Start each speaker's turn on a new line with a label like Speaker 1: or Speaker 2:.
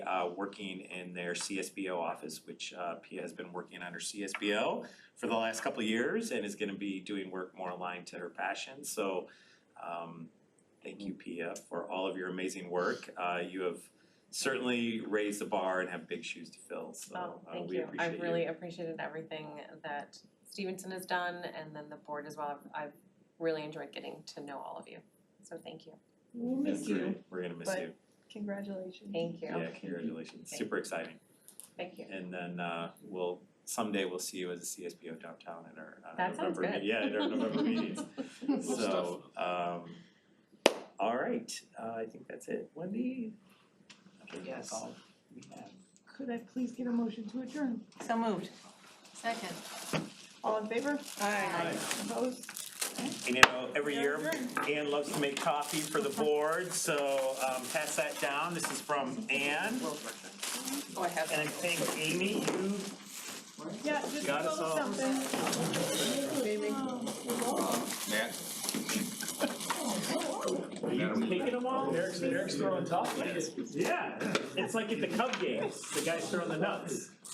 Speaker 1: uh working in their CSBO office, which uh Pia has been working under CSBO for the last couple of years and is gonna be doing work more aligned to her passion, so um thank you Pia for all of your amazing work. Uh you have certainly raised the bar and have big shoes to fill, so
Speaker 2: Oh,
Speaker 1: uh,
Speaker 2: thank
Speaker 1: we
Speaker 2: you.
Speaker 1: appreciate
Speaker 2: I've
Speaker 1: you.
Speaker 2: really appreciated everything that Stevenson has done and then the board as well. I've I've really enjoyed getting to know all of you. So thank you.
Speaker 3: We'll miss
Speaker 1: That's
Speaker 3: you.
Speaker 1: great. We're gonna miss
Speaker 3: but-
Speaker 1: you,
Speaker 3: Congratulations.
Speaker 2: Thank
Speaker 1: yeah,
Speaker 2: you.
Speaker 1: congratulations,
Speaker 2: Thank
Speaker 1: super exciting.
Speaker 2: Thank you.
Speaker 1: And then uh we'll, someday we'll see you as a CSBO downtown at our uh
Speaker 2: That sounds
Speaker 1: November, me-
Speaker 2: good.
Speaker 1: yeah, at our November meetings.
Speaker 4: Good
Speaker 1: So um, all right, uh I think that's it. Wendy? I think that's
Speaker 4: Yes.
Speaker 1: all we have.
Speaker 3: Could I please get a motion to adjourn?
Speaker 5: So moved. Second.
Speaker 3: All in favor?
Speaker 5: Aye.
Speaker 3: Opposed?
Speaker 1: And you know, every
Speaker 3: We are
Speaker 1: year
Speaker 3: adjourned.
Speaker 1: Ann loves to make coffee for the board, so um pass that down. This is from Ann.
Speaker 5: Oh, I have
Speaker 1: And I
Speaker 5: that.
Speaker 1: think Amy, you
Speaker 3: Yeah, just
Speaker 1: Got us
Speaker 3: a little
Speaker 1: all.
Speaker 3: something.
Speaker 4: Matt?
Speaker 1: taking them all?
Speaker 6: Eric's, Eric's throwing top.
Speaker 1: Yeah, it's like at the Cub games, the guys throwing the nuts.